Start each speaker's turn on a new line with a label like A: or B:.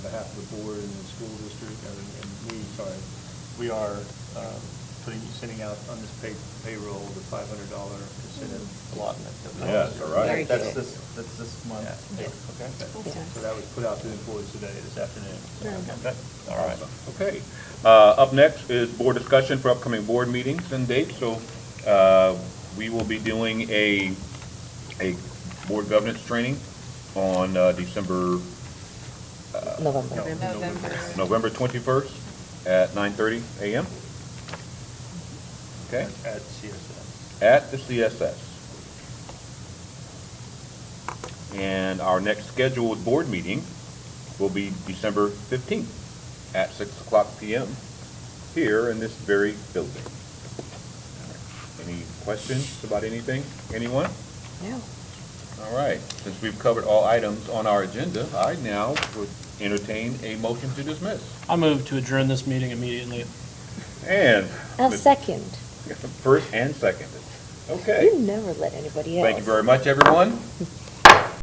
A: behalf of the board and the school district, and and me, sorry, we are um, putting, sending out on this pay- payroll the five hundred dollar incentive allotment. that we-
B: Yes, all right. Very
C: That's
B: good.
C: this, that's this month.
A: Yeah.
C: Okay.
B: Awesome.
A: So that was put out to the employees today, this afternoon.
C: Very
B: Okay, all right.
A: Okay.
B: Uh, Up next is board discussion for upcoming board meetings and dates. So uh, we will be doing a, a board governance training on uh, December,
A: No,
D: November.
E: November.
B: November 21st at 9:30 a.m. Okay,
A: At CSS.
B: at the CSS. And our next scheduled board meeting will be December 15th at 6 o'clock p.m. here in this very building. Any questions about anything? Anyone?
D: No.
B: All right, since we've covered all items on our agenda, I now would entertain a motion to dismiss.
F: I move to adjourn this meeting immediately.
B: And.
D: I'll second.
B: First and second. Okay.
D: You never let anybody else.
B: Thank you very much, everyone.